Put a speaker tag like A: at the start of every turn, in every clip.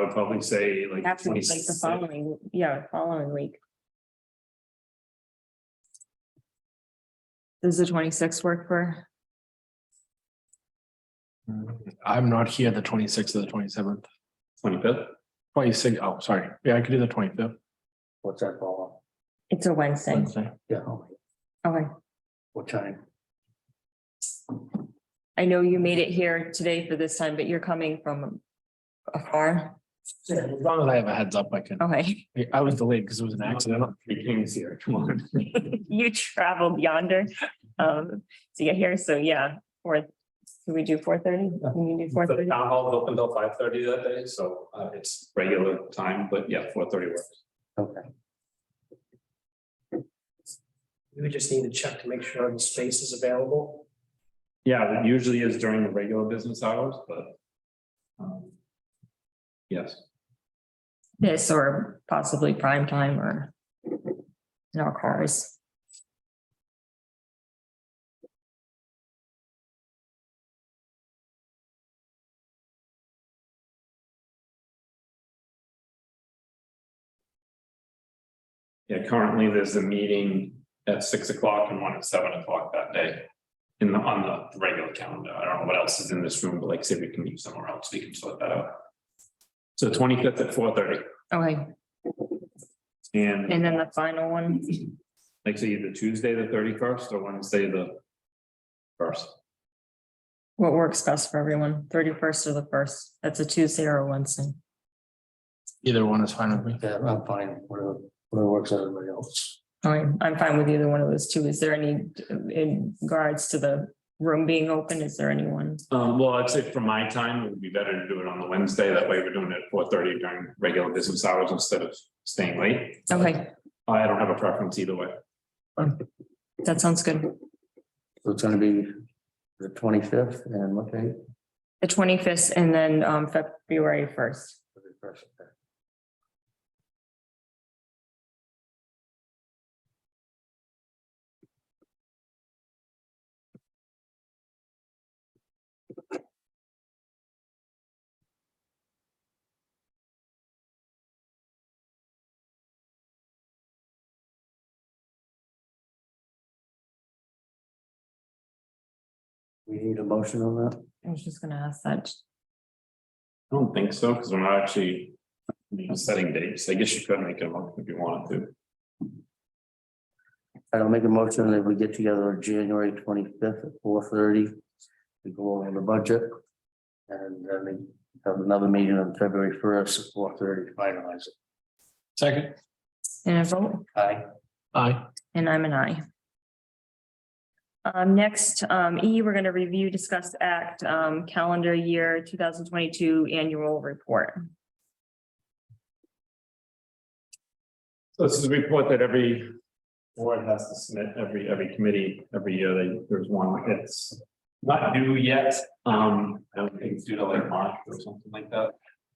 A: would probably say like.
B: That's like
A: 26.
B: the following, yeah, following week.
C: Does the twenty-sixth work for?
D: I'm not here the twenty sixth or the twenty seventh,
A: Twenty-fifth,
D: twenty six, oh, sorry, yeah, I could do the twenty fifth.
E: What's that ball?
B: It's a Wednesday.
D: Wednesday.
E: Yeah, oh,
B: Okay.
E: what time?
B: I know you made it here today for this time, but you're coming from afar.
D: Yeah, As long as I have a heads up, I can,
B: Okay.
D: I was delayed because it was an accident.
A: three kings here, come on.
B: You traveled yonder um to get here. So yeah, fourth. Can we do four thirty? Can you do four
A: The
B: thirty?
A: town hall is open till five thirty that day, so uh it's regular time, but yeah, four thirty works.
E: Okay.
F: We just need to check to make sure the space is available.
A: Yeah, it usually is during the regular business hours, but. um, Yes,
B: This or possibly prime time or in our cars.
A: yeah, currently there's a meeting at six o'clock and one at seven o'clock that day. In the, on the regular calendar, I don't know what else is in this room, but like I said, we can meet somewhere else, we can sort that out. So twenty fifth at four thirty
B: Okay,
A: and.
B: and then the final one,
A: Like say either Tuesday, the thirty first, or Wednesday, the first.
B: what works best for everyone, thirty first or the first? That's a Tuesday or a Wednesday.
D: Either one is fine with me.
E: Yeah, I'm fine, whatever, whatever works out, everybody else.
B: I'm, I'm fine with either one of those two. Is there any, in regards to the room being open, is there anyone?
A: Um, well, I'd say for my time, it would be better to do it on the Wednesday. That way we're doing it at four thirty during regular business hours instead of staying late.
B: Okay,
A: I don't have a preference either way.
B: that sounds good.
E: So it's gonna be the twenty-fifth and what day?
B: The twenty-fifth and then, um, February first.
E: We need a motion on that?
B: I was just gonna ask that.
A: I don't think so, because we're not actually you know, setting dates. I guess you could make it one if you wanted to.
E: I'll make a motion that we get together on January twenty-fifth at four thirty. to go over the budget. And then we have another meeting on February first at four thirty to finalize it.
D: Second,
B: And I vote,
E: Aye.
D: aye,
B: and I'm an I. Um, next, um, E, we're gonna review, discuss, act, um, calendar year two thousand twenty-two annual report.
A: So This is a report that every board has to submit, every, every committee, every year, they, there's one, it's not due yet, um, I don't think it's due till like March or something like that.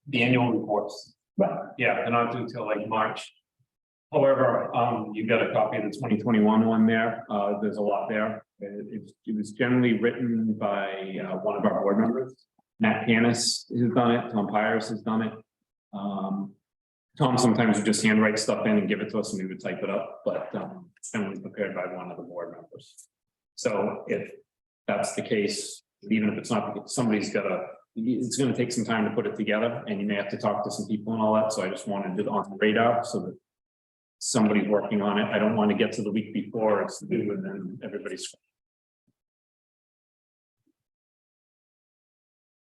A: The annual reports, but yeah, they're not due till like March. However, um, you've got a copy of the twenty twenty-one one there, uh, there's a lot there, it, it's- it was generally written by, uh, one of our board members. Matt Panis has done it, Tom Pires has done it. Um, Tom sometimes would just handwrite stuff in and give it to us and we would type it up, but um, it's generally prepared by one of the board members. So if that's the case, even if it's not, somebody's gotta, it's gonna take some time to put it together and you may have to talk to some people and all that, so I just wanted it on the radar so that somebody's working on it. I don't want to get to the week before it's due and then everybody's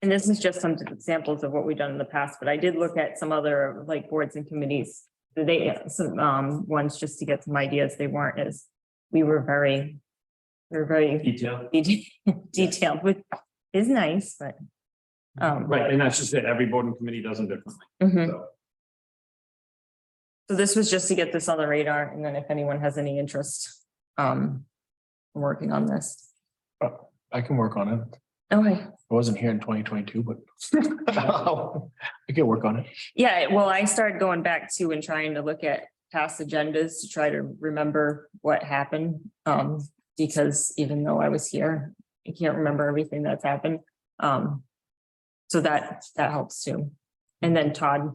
B: And this is just some examples of what we've done in the past, but I did look at some other like boards and committees. They, some, um, ones just to get some ideas. They weren't as, we were very, we were very
A: detailed.
B: detailed, which is nice, but. Um,
A: Right, and that's just it. Every board and committee does them differently,
B: mhm.
A: so.
B: so this was just to get this on the radar and then if anyone has any interest, um, in working on this.
D: I can work on it.
B: Okay,
D: I wasn't here in twenty twenty two, but I can work on it.
B: yeah, well, I started going back to and trying to look at past agendas to try to remember what happened. Um, because even though I was here, I can't remember everything that's happened. Um, so that, that helps too. And then Todd